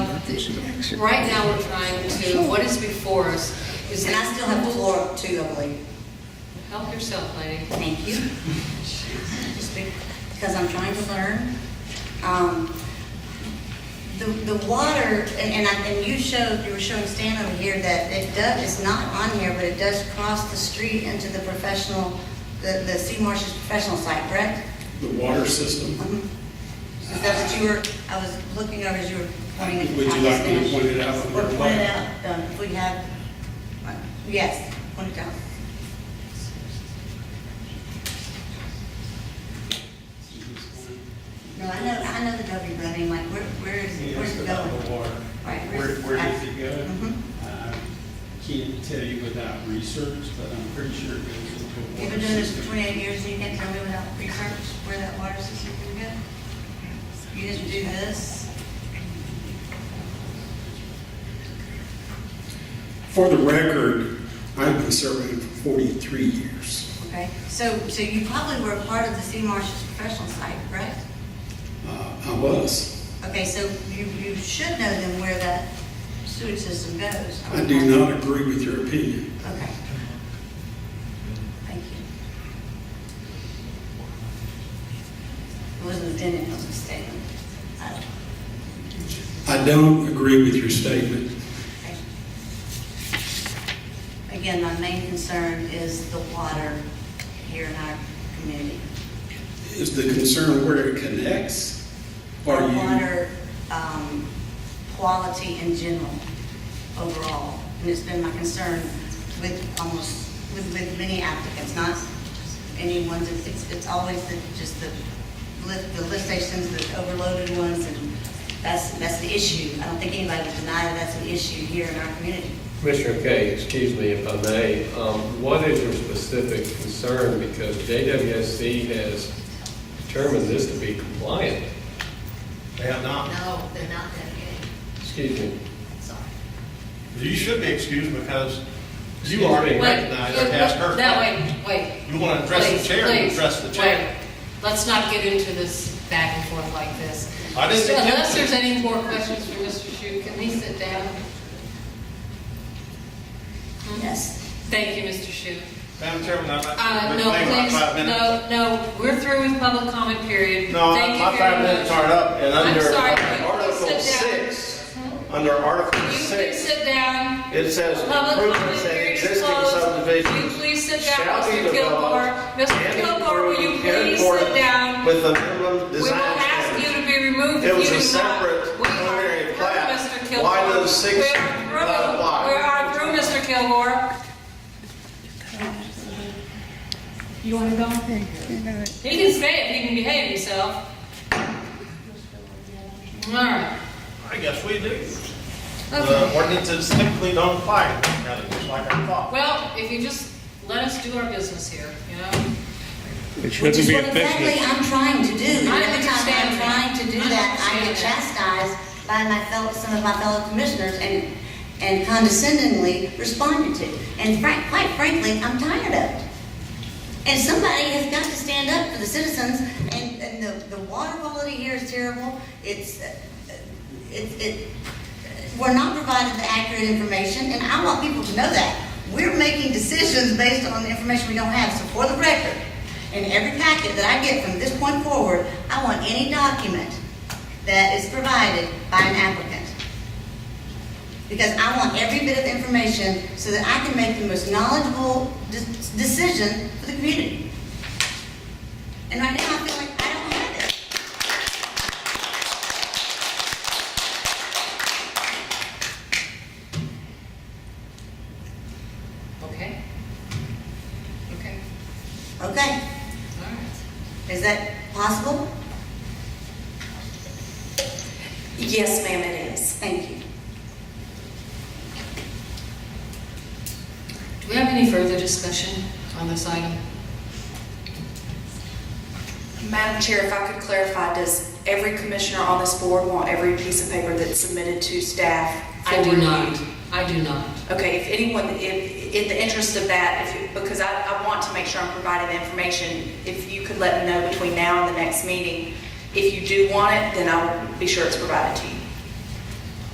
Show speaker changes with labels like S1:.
S1: Right now, we're trying to, what is before us is.
S2: And I still have the floor too, I believe.
S1: Help yourself, lady.
S2: Thank you. Just be- Because I'm trying to learn. Um, The, the water, and, and I, and you showed, you were showing Stan over here that it does, it's not on here, but it does cross the street into the professional, the, the Sea Marsh's professional site, correct?
S3: The water system,
S2: Mhm. Is that what you were, I was looking over as you were pointing at
S3: Would you
S2: at the
S3: like me to
S2: Spanish.
S3: point it out on
S2: Or
S3: your
S2: point it
S3: left?
S2: out, um, if we have, uh, yes, point it out. No, I know, I know the W, but I mean, like, where, where is,
S4: He
S2: where's
S4: asked
S2: it
S4: about
S2: going?
S4: the water.
S2: Right,
S4: Where,
S2: where's-
S4: where does it go?
S2: Mhm.
S4: I Can't tell you without research, but I'm pretty sure it goes into a water.
S2: You've been doing this for
S4: system.
S2: twenty-eight years, and you can't tell me without research where that water system can go? You just do this?
S3: for the record, I've been serving for 43 years.
S2: Okay, so, so you probably were a part of the Sea Marsh's professional site, correct?
S3: Uh, I was.
S2: Okay, so you, you should know then where that sewage system goes.
S3: I do not agree with your opinion.
S2: Okay. Thank you. It wasn't a opinion, it was a statement. I-
S3: I don't agree with your statement.
S2: Again, my main concern is the water here in our community.
S3: Is the concern where it connects? Are you,
S2: Water, um, quality in general, overall. And it's been my concern with almost, with, with many applicants, not any ones, it's- it's, it's always the, just the lift, the lift stations, the overloaded ones, and that's, that's the issue. I don't think anybody would deny that that's an issue here in our community.
S5: Commissioner Kay, excuse me if I may, um, what is your specific concern? Because JWSC has determined this to be compliant.
S6: They have not.
S1: No, they're not that good.
S5: Excuse me.
S1: Sorry.
S6: You should be excused because you already
S1: Wait,
S6: recognized
S1: wait,
S6: that past her.
S1: No, wait, wait.
S6: You want to address the
S1: Please,
S6: chair, you
S1: please,
S6: address the chair.
S1: wait. Let's not get into this back and forth like this.
S6: I didn't
S1: So Unless
S6: intend
S1: there's
S6: to.
S1: any more questions for Mr. Shu, can he sit down?
S2: Yes.
S1: Thank you, Mr. Shu.
S6: Madam Chairman, I'm
S1: Uh,
S6: not,
S1: no,
S6: reclaim my
S1: please,
S6: five minutes.
S1: no, no, we're through with public comment period.
S6: No,
S1: Thank you
S6: my
S1: very
S6: five minutes
S1: much.
S6: aren't up and
S1: I'm
S6: under
S1: sorry,
S6: under
S1: but you
S6: Article
S1: sit down.
S6: six, under Article
S1: You can
S6: six,
S1: sit down.
S6: it says
S1: Public comment
S6: improvements in
S1: period is
S6: existing
S1: closed. Will you
S6: subdivisions.
S1: please sit down,
S6: shall be
S1: Mr. Gilmore?
S6: developed
S1: Mr.
S6: and
S1: Gilmore, will you
S6: improved in
S1: please sit
S6: accordance
S1: down?
S6: With the minimum
S1: We will
S6: design
S1: ask you
S6: standards.
S1: to be removed if
S6: It
S1: you
S6: was
S1: do not.
S6: a separate
S1: We are
S6: preliminary
S1: through,
S6: plat.
S1: Mr. Kilgore.
S6: Why does six
S1: We are through.
S6: not apply?
S1: We are through, Mr. Kilgore. You want to go? He can stay if he can behave himself. All right.
S6: I guess we do. The
S1: Okay.
S6: ordinances typically don't apply, kind of just like I thought.
S1: Well, if you just let us do our business here, you know?
S7: It
S2: Which
S7: shouldn't
S2: is
S7: be
S2: what
S7: a
S2: exactly
S7: business.
S2: I'm trying to
S1: I
S2: do. Every time I'm
S1: understand
S2: trying
S1: that.
S2: to do
S1: I
S2: that, I get
S1: understand
S2: chastised by my fellow, some of my fellow commissioners and, and condescendingly responded to. And frank, quite frankly, I'm tired of it. And somebody has got to stand up for the citizens, and, and the, the water quality here is terrible. It's, uh, it, it, we're not provided the accurate information, and I want people to know that. We're making decisions based on the information we don't have, so for the record, in every packet that I get from this point forward, I want any document that is provided by an applicant. Because I want every bit of information so that I can make the most knowledgeable de- decision for the community. And right now, I feel like I don't have it.
S1: Okay. Okay,
S2: Okay,
S1: all right.
S2: is that possible?
S8: Yes, ma'am, it is.
S2: Thank you.
S1: Do we have any further discussion on this item?
S8: Madam Chair, if I could clarify, does every commissioner on this board want every piece of paper that's submitted to staff? for
S1: I do not.
S8: review?
S1: I do not.
S8: Okay, if anyone, if, in the interest of that, if, you- because I, I want to make sure I'm providing the information, if you could let me know between now and the next meeting, if you do want it, then I'll be sure it's provided to you.